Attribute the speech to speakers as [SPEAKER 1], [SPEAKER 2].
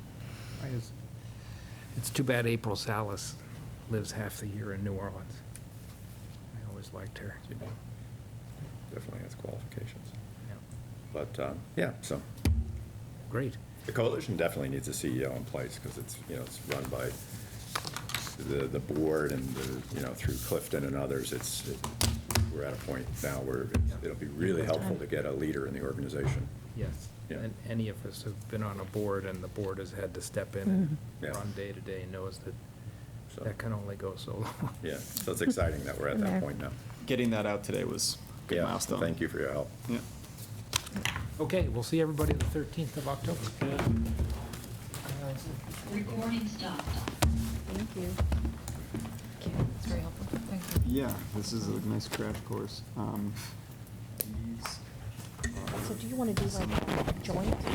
[SPEAKER 1] is, it's too bad April Salas lives half the year in New Orleans. I always liked her.
[SPEAKER 2] She Definitely has qualifications.
[SPEAKER 1] Yeah.
[SPEAKER 2] But, um, yeah, so
[SPEAKER 1] Great.
[SPEAKER 2] the coalition definitely needs a CEO in place because it's, you know, it's run by the, the board and the, you know, through Clifton and others. It's, it- we're at a point now where it'll be really helpful to get a leader in the organization.
[SPEAKER 1] Yes.
[SPEAKER 2] Yeah.
[SPEAKER 1] And any of us have been on a board and the board has had to step in
[SPEAKER 2] Mhm. Yeah.
[SPEAKER 1] and run day to day and knows that
[SPEAKER 2] So-
[SPEAKER 1] that can only go so long.
[SPEAKER 2] Yeah, so it's exciting that we're at that point now.
[SPEAKER 3] Getting that out today was a good
[SPEAKER 2] Yeah,
[SPEAKER 3] milestone.
[SPEAKER 2] Thank you for your help.
[SPEAKER 3] Yeah.
[SPEAKER 1] Okay, we'll see everybody the 13th of October.
[SPEAKER 4] Recording stopped.
[SPEAKER 5] Thank you. Thank you. It's very helpful. Thank you.
[SPEAKER 3] Yeah, this is a nice crash course. Um, these
[SPEAKER 5] So
[SPEAKER 3] are
[SPEAKER 5] do you want to do
[SPEAKER 3] some-
[SPEAKER 5] like joint?